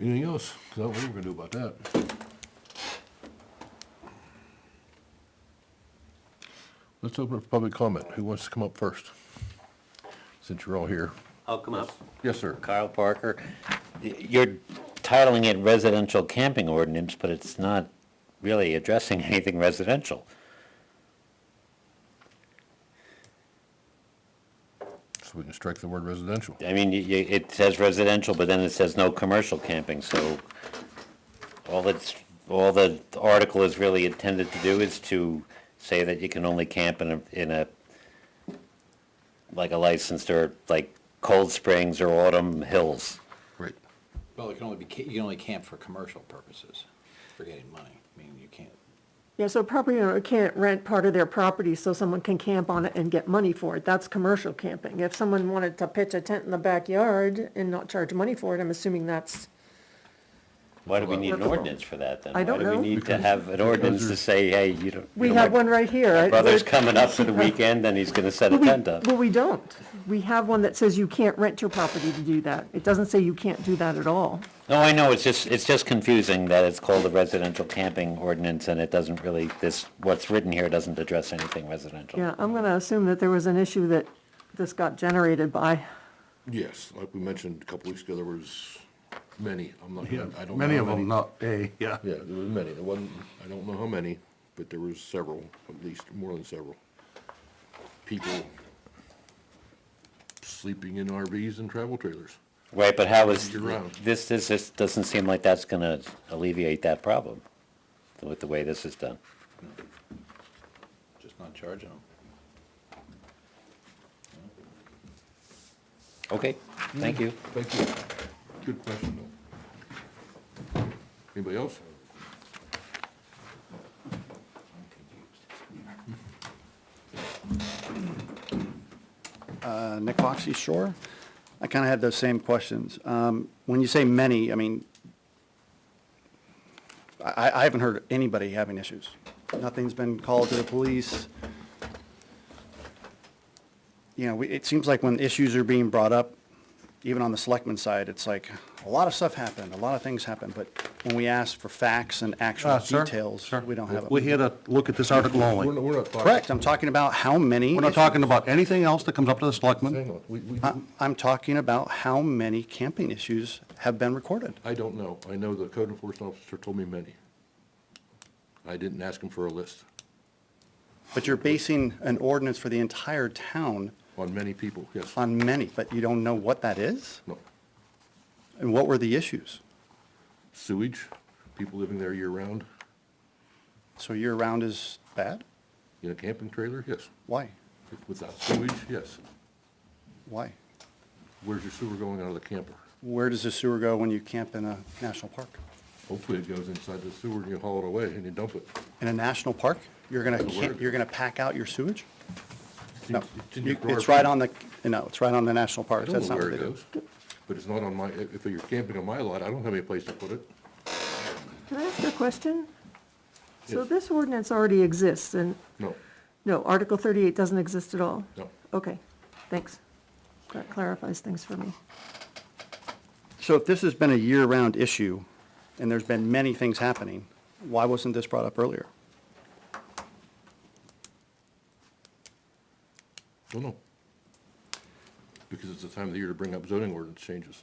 Anything else? 'Cause I don't know what we're gonna do about that. Let's open up for public comment. Who wants to come up first? Since you're all here. I'll Oh, come up. Yes, sir. Kyle Parker, Y- you're titling it residential camping ordinance, but it's not really addressing anything residential. So we can strike the word residential. I mean, y- y- it says residential, but then it says no commercial camping, so all that's, all the article is really intended to do is to say that you can only camp in a, in a, like a licensed or like Cold Springs or Autumn Hills. Great. Well, it can only be, ca- you can only camp for commercial purposes, for getting money. I mean, you can't, Yeah, so a property owner can't rent part of their property so someone can camp on it and get money for it. That's commercial camping. If someone wanted to pitch a tent in the backyard and not charge money for it, I'm assuming that's, Why do we need an Well, ordinance for that then? I don't Why do know. we need to have an ordinance to say, hey, you don't? we you know, have my one right here. I- Brother's we're- coming up for the weekend and he's gonna set a Well, we- tent up. Well, we don't. We have one that says you can't rent your property to do that. It doesn't say you can't do that at all. No, I know, it's just, it's just confusing that it's called a residential camping ordinance and it doesn't really, this, what's written here doesn't address anything residential. Yeah, I'm gonna assume that there was an issue that this got generated by. Yes, like we mentioned a couple weeks ago, there was many. I'm not, I don't know. how Many of them, not a, yeah. Yeah, there was many. There wasn't, I don't know how many, but there was several, at least more than several. People sleeping in RVs and travel trailers. Right, but how is, You're wrong. this, this, this doesn't seem like that's gonna alleviate that problem with the way this is done. just not charging them. Okay, thank you. Thank you. Good question, though. Anybody else? Uh, Nick Foxey, sure. I kind of had those same questions. Um, When you say many, I mean, I, I- I haven't heard anybody having issues. Nothing's been called to the police. You know, we- it seems like when issues are being brought up, even on the selectmen's side, it's like, a lot of stuff happened, a lot of things happened, but when we ask for facts and actual Uh, sir, details, sir, we don't have. it. We're here to look at this article We're not, only. we're not talking. Correct, I'm talking about how many. We're not issues. talking about anything else that comes up to the selectmen. Hang on, we, we, I- I'm talking about how many camping issues have been recorded. I don't know. I know the code enforcement officer told me many. I didn't ask him for a list But you're basing an ordinance for the entire town on many people, yes. on many, but you don't know what that is? No, And what were the issues? sewage, people living there year-round, So year-round is bad? in a camping trailer, yes. Why? Without sewage, yes. Why? Where's your sewer going out of the camper? Where does the sewer go when you camp in a national park? Hopefully it goes inside the sewer and you haul it away and you dump it. In a national park, you're gonna, That's a ca- word. you're gonna pack out your sewage? No, It's in your You- it's garage. right on the, no, it's right on the national I park, don't that's know not where what they it do. goes, but it's not on my, if if you're camping on my lot, I don't have any place to put it. Can I ask a question? So Yes. this ordinance already exists and, No, no, Article thirty-eight doesn't exist at all? no. Okay, thanks. That clarifies things for me. So if this has been a year-round issue, and there's been many things happening, why wasn't this brought up earlier? Well, no. Because it's the time of the year to bring up zoning ordinance changes.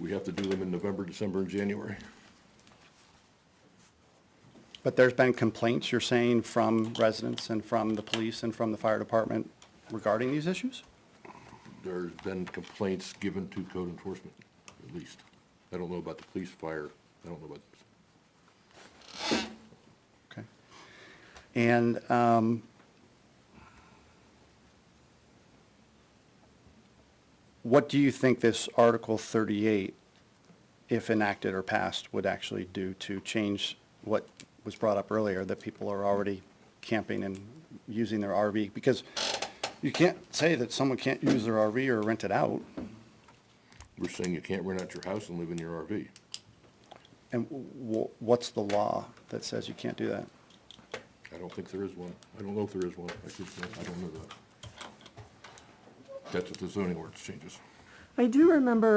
We have to do them in November, December, and January. But there's been complaints, you're saying, from residents and from the police and from the fire department regarding these issues? There's been complaints given to code enforcement, at least. I don't know about the police, fire, I don't know about this. Okay. And, um, what do you think this Article 38, if enacted or passed, would actually do to change what was brought up earlier, that people are already camping and using their RV? Because you can't say that someone can't use their RV or rent it out. We're saying you can't rent out your house and live in your RV. And wh- what's the law that says you can't do that? I don't think there is one. I don't know if there is one. I should say, I don't know that. That's what the zoning ordinance changes. I do remember